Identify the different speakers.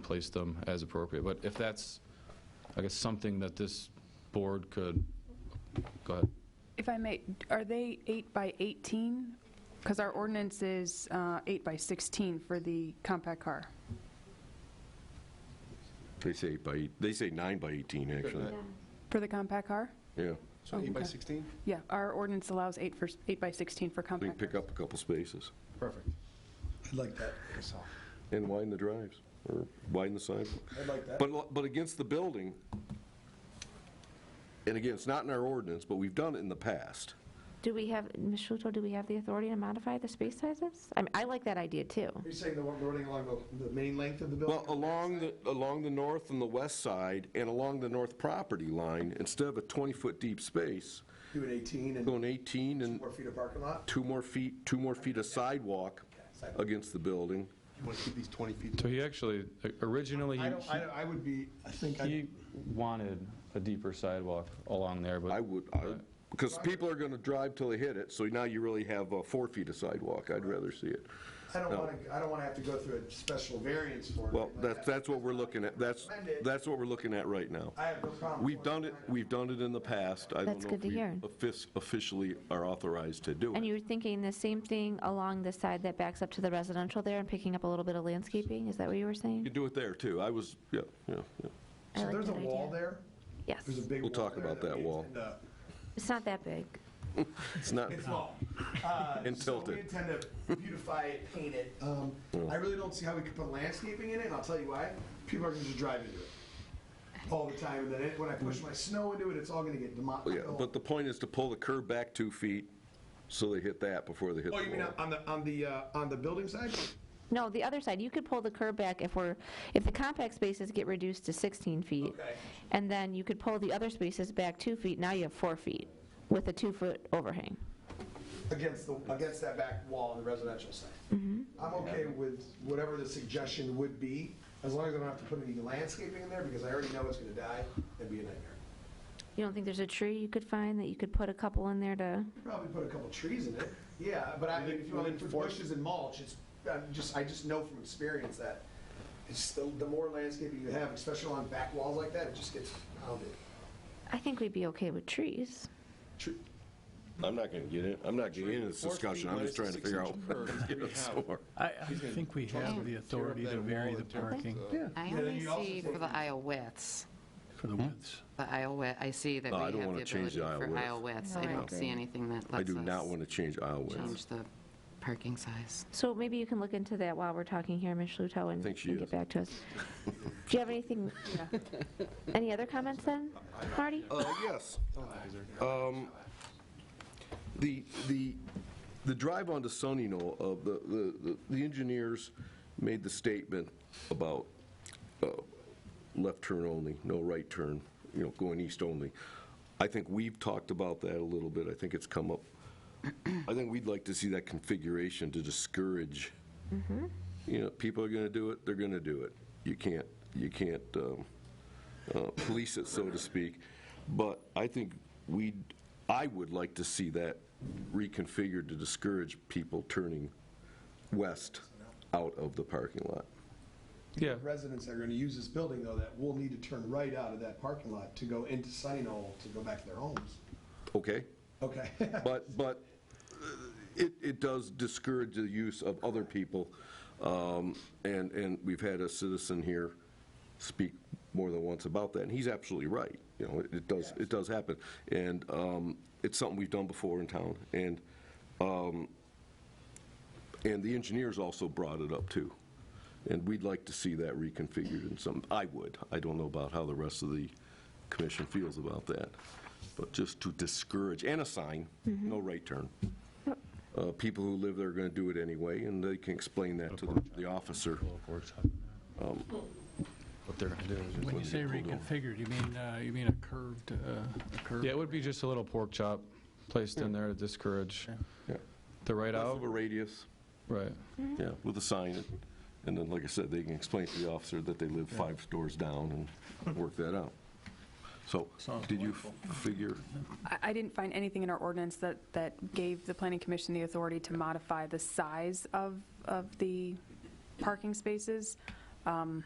Speaker 1: place them as appropriate. But if that's, I guess, something that this board could, go ahead.
Speaker 2: If I may, are they 8 by 18? Because our ordinance is uh, 8 by 16 for the compact car.
Speaker 3: They say eight by, eight- they say nine by 18, actually.
Speaker 2: For the compact car?
Speaker 3: Yeah.
Speaker 4: So
Speaker 5: Oh,
Speaker 4: eight by
Speaker 2: Okay.
Speaker 4: 16?
Speaker 2: Yeah, our ordinance allows 8 for, 8 by 16 for
Speaker 3: We can
Speaker 2: compact.
Speaker 3: pick up a couple spaces
Speaker 4: Perfect. I'd like that. myself.
Speaker 3: and widen the drives or widen the sidewalk.
Speaker 4: I'd like that.
Speaker 3: But, lo- but against the building, and again, it's not in our ordinance, but we've done it in the past.
Speaker 5: Do we have, Ms. Shuto, do we have the authority to modify the space sizes? I mean, I like that idea, too.
Speaker 4: Are you saying the one running along the, the main length of the building?
Speaker 3: Well, along the, along the north and the west side and along the north property line, instead of a 20-foot deep space,
Speaker 4: Do an 18 and
Speaker 3: going 18 and
Speaker 4: four feet of parking lot?
Speaker 3: two more feet, two more feet of sidewalk against the building.
Speaker 4: You want to keep these 20 feet?
Speaker 1: So he actually, originally,
Speaker 4: I
Speaker 1: he-
Speaker 4: don't, I, don't- I would be, I think, I
Speaker 1: he wanted a deeper sidewalk along there,
Speaker 3: I
Speaker 1: but
Speaker 3: would, because people are going to drive till they hit it, so now you really have uh, four feet of sidewalk. I'd rather see it.
Speaker 4: I don't want to, I don't want to have to go through a special variance for it.
Speaker 3: Well,
Speaker 4: like
Speaker 3: that's,
Speaker 4: that.
Speaker 3: that's what we're looking at, that's, that's what we're looking at right now.
Speaker 4: I have no problem.
Speaker 3: We've
Speaker 4: with
Speaker 3: done it, we've done it in the past. I don't
Speaker 5: That's
Speaker 3: know
Speaker 5: good
Speaker 3: if
Speaker 5: to
Speaker 3: we
Speaker 5: hear.
Speaker 3: offic- Officially are authorized to do
Speaker 5: And
Speaker 3: it.
Speaker 5: you're thinking the same thing along the side that backs up to the residential there and picking up a little bit of landscaping? Is that what you were
Speaker 3: You
Speaker 5: saying?
Speaker 3: do it there, too. I was, yeah, yeah, yeah.
Speaker 5: I
Speaker 4: So
Speaker 5: like
Speaker 4: there's a
Speaker 5: that
Speaker 4: wall
Speaker 5: idea.
Speaker 4: there?
Speaker 5: Yes.
Speaker 4: There's a big
Speaker 3: We'll
Speaker 4: wall
Speaker 3: talk
Speaker 4: there
Speaker 3: about that
Speaker 4: we
Speaker 3: wall.
Speaker 4: intend to-
Speaker 5: It's not that big.
Speaker 3: It's not,
Speaker 4: It's long. Uh,
Speaker 3: And
Speaker 4: so
Speaker 3: tilted.
Speaker 4: we intend to beautify it, paint it. Um, I really don't see how we could put landscaping in it, and I'll tell you why. People are going to just drive into it all the time, and then it- when I push my snow into it, it's all going to get demolished.
Speaker 3: yeah, but the point is to pull the curb back two feet so they hit that before they hit the
Speaker 4: Oh, you mean
Speaker 3: wall.
Speaker 4: on the, on the, uh, on the building side?
Speaker 5: No, the other side, you could pull the curb back if we're, if the compact spaces get reduced to 16 feet.
Speaker 4: Okay.
Speaker 5: And then you could pull the other spaces back two feet, now you have four feet with a two-foot overhang.
Speaker 4: Against the, against that back wall on the residential side. I'm okay with whatever the suggestion would be, as long as I don't have to put any landscaping in there, because I already know it's going to die. That'd be a nightmare.
Speaker 5: You don't think there's a tree you could find that you could put a couple in there to?
Speaker 4: Probably put a couple trees in it, yeah, but I, if you want to put bushes and mulch, it's, I'm just, I just know from experience that it's, the the more landscaping you have, especially on back walls like that, it just gets pounded.
Speaker 5: I think we'd be okay with trees.
Speaker 3: I'm not going to get in, I'm not getting into this
Speaker 6: Four feet
Speaker 3: discussion. I'm
Speaker 6: minus
Speaker 3: just trying to
Speaker 6: the
Speaker 3: figure out
Speaker 6: six-inch
Speaker 3: where
Speaker 6: curve
Speaker 3: to
Speaker 6: is
Speaker 3: get
Speaker 6: gonna
Speaker 3: a
Speaker 6: have-
Speaker 3: store.
Speaker 7: I, I think we have the authority
Speaker 6: Tear
Speaker 7: to
Speaker 6: up that
Speaker 7: vary
Speaker 6: wall
Speaker 7: the
Speaker 6: in terms
Speaker 7: parking
Speaker 6: of-
Speaker 8: I
Speaker 4: then
Speaker 8: only
Speaker 4: you also
Speaker 8: see
Speaker 4: think-
Speaker 8: for the aisle widths, Hmm?
Speaker 7: for the widths.
Speaker 8: the aisle width, I see that
Speaker 3: No,
Speaker 8: we
Speaker 3: I
Speaker 8: have
Speaker 3: don't
Speaker 8: the
Speaker 3: wanna change
Speaker 8: ability
Speaker 3: the aisle
Speaker 8: for
Speaker 3: width.
Speaker 8: aisle widths.
Speaker 5: No,
Speaker 8: I
Speaker 5: I
Speaker 8: don't
Speaker 5: agree.
Speaker 8: see anything that
Speaker 3: I
Speaker 8: lets
Speaker 3: do not want
Speaker 8: us
Speaker 3: to change aisle width.
Speaker 8: change the parking size.
Speaker 5: So maybe you can look into that while we're talking here, Ms. Luto, and
Speaker 3: think she
Speaker 5: and
Speaker 3: is.
Speaker 5: get back to us. Do you have anything, any other comments then, Marty?
Speaker 3: Uh, yes. Um, The, the, the drive onto Sunny Knoll, uh, the, the- the, the engineers made the statement about uh, left turn only, no right turn, you know, going east only. I think we've talked about that a little bit, I think it's come up. I think we'd like to see that configuration to discourage, you know, people are gonna do it, they're gonna do it. You can't, you can't, um, uh, police it, so to speak. But I think we, I would like to see that reconfigured to discourage people turning west out of the parking lot.
Speaker 1: yeah,
Speaker 4: Residents that are going to use this building, though, that will need to turn right out of that parking lot to go into Sunny Knoll to go back to their homes.
Speaker 3: Okay?
Speaker 4: Okay.
Speaker 3: But, but uh, it, it does discourage the use of other people. Um, And, and we've had a citizen here speak more than once about that, and he's absolutely right. You know, it- it does, it does happen. And um, it's something we've done before in town. And, um, and the engineers also brought it up, too. And we'd like to see that reconfigured in some, I would. I don't know about how the rest of the commission feels about that. But just to discourage, and a sign, no right turn. Uh, People who live there are going to do it anyway, and they can explain that to the- the officer. Um,
Speaker 1: what they're gonna do is just-
Speaker 7: When you say reconfigured, you mean, uh, you mean a curved, uh, a curved?
Speaker 1: Yeah, it would be just a little pork chop placed in there to discourage
Speaker 3: Yeah.
Speaker 1: the right
Speaker 3: Less
Speaker 1: out,
Speaker 3: of a radius,
Speaker 1: right.
Speaker 3: yeah, with a sign. And then, like I said, they can explain to the officer that they live five stores down and work that out. So,
Speaker 7: Sounds
Speaker 3: did you figure,
Speaker 2: I- I didn't find anything in our ordinance that, that gave the planning commission the authority to modify the size of, of the parking spaces. Um,